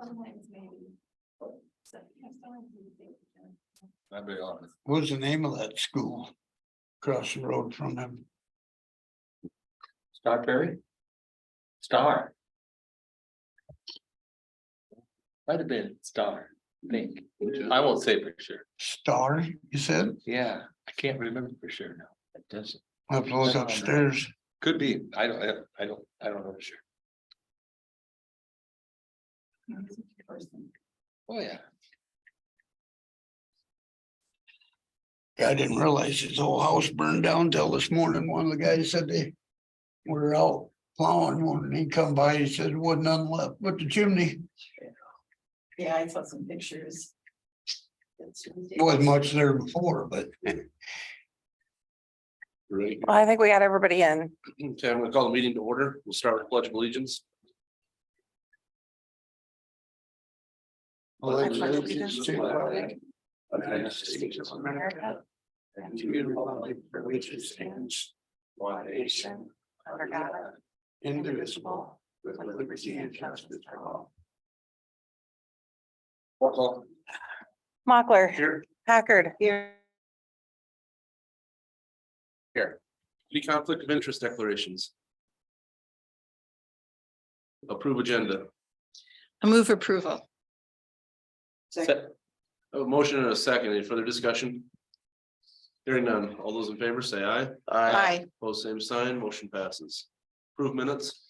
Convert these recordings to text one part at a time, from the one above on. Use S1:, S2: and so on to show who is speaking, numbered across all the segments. S1: Sometimes maybe. So, yeah, sometimes you think, uh,
S2: I'll be honest.
S3: What was the name of that school? Across the road from them,
S2: Star Perry? Star. Might have been Star, I think. I won't say for sure.
S3: Star, you said?
S2: Yeah, I can't remember for sure now. It doesn't.
S3: I have to look upstairs.
S2: Could be. I don't, I- I don't, I don't know for sure.
S1: music person.
S2: Oh, yeah.
S3: I didn't realize his whole house burned down till this morning. One of the guys said they were out plowing one and he come by, he said, would none left but the chimney.
S1: Yeah, I saw some pictures. That's really-
S3: Wasn't much there before, but
S2: Right.
S4: Well, I think we got everybody in.
S2: Okay, I'm gonna call the meeting to order. We'll start with pledge of allegiance.
S4: I pledge allegiance to the flag
S2: of the United States of America and to the republic for which it stands, one nation,
S4: under God, indivisible, with liberty and justice for all.
S2: Roll call.
S4: Mochler,
S2: Here.
S4: Packard. Here.
S2: Here. Any conflict of interest declarations? Approve agenda.
S5: I move approval.
S2: Se- A motion and a second. Any further discussion? Hearing none. All those in favor say aye.
S5: Aye.
S2: Pose same sign. Motion passes. Approve minutes.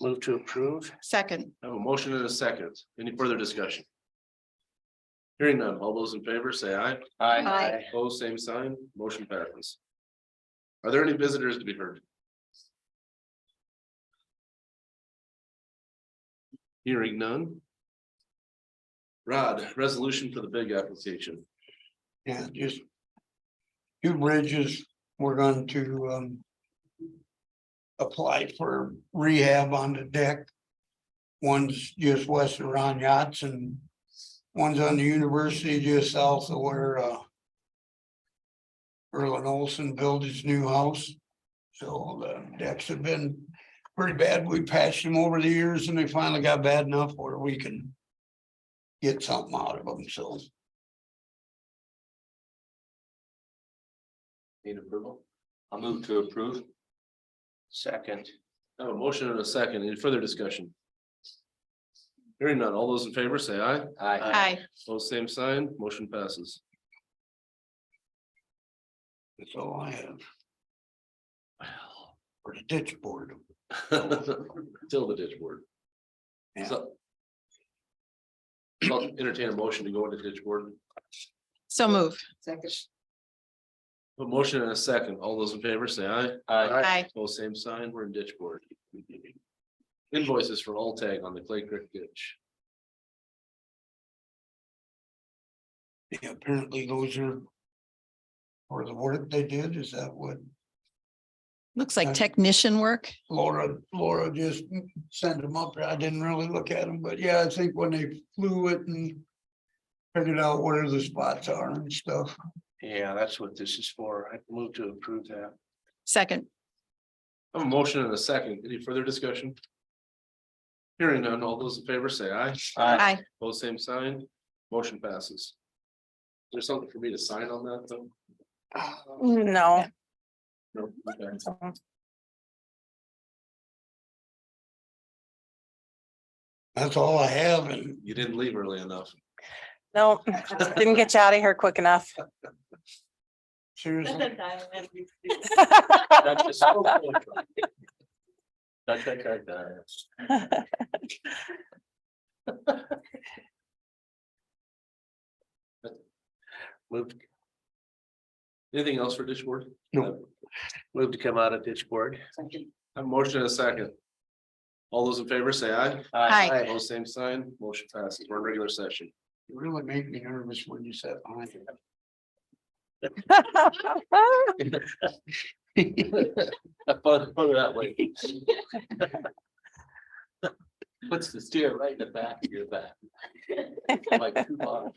S6: Move to approve,
S5: Second.
S2: I have a motion and a second. Any further discussion? Hearing none. All those in favor say aye.
S5: Aye.
S2: Pose same sign. Motion passes. Are there any visitors to be heard? Hearing none. Rod, resolution for the big application.
S3: yeah, just two bridges, we're going to um apply for rehab on the deck. One's just west of Ron Yachts and one's on the university just south of where uh Erlen Olson built his new house. So the decks have been pretty bad. We patched them over the years and they finally got bad enough where we can get something out of them, so.
S2: Need approval? I'll move to approve.
S6: second,
S2: I have a motion and a second. Any further discussion? Hearing none. All those in favor say aye.
S6: Aye.
S5: Aye.
S2: Pose same sign. Motion passes.
S3: That's all I have. Or the ditch board.
S2: Till the ditch board.
S3: Yeah.
S2: So. I'll entertain a motion to go into ditch board.
S5: So move.
S2: A motion and a second. All those in favor say aye.
S5: Aye.
S2: Pose same sign. We're in ditch board. Invoices for all tag on the Clay Creek ditch.
S3: Yeah, apparently those are. for the work they did, is that what
S5: Looks like technician work.
S3: Laura, Laura just sent them up, I didn't really look at them, but yeah, I think when they flew it and. Figured out where the spots are and stuff,
S6: yeah, that's what this is for, I move to approve that.
S5: Second.
S2: I have a motion and a second. Any further discussion? Hearing none. All those in favor say aye.
S5: Aye.
S2: Both same sign, motion passes. There's something for me to sign on that though?
S4: No.
S2: No, okay.
S3: that's all I have and
S2: You didn't leave early enough.
S4: No, didn't get you out of here quick enough.
S3: seriously,
S6: Move,
S2: Anything else for ditch board?
S3: No.
S6: move to come out of ditch board.
S2: I have a motion and a second. All those in favor say aye.
S5: Aye.
S2: Both same sign, motion passes, we're in regular session.
S3: you really make me nervous when you said I.
S2: Put that way. Puts the steer right in the back of your back. Like two bottles.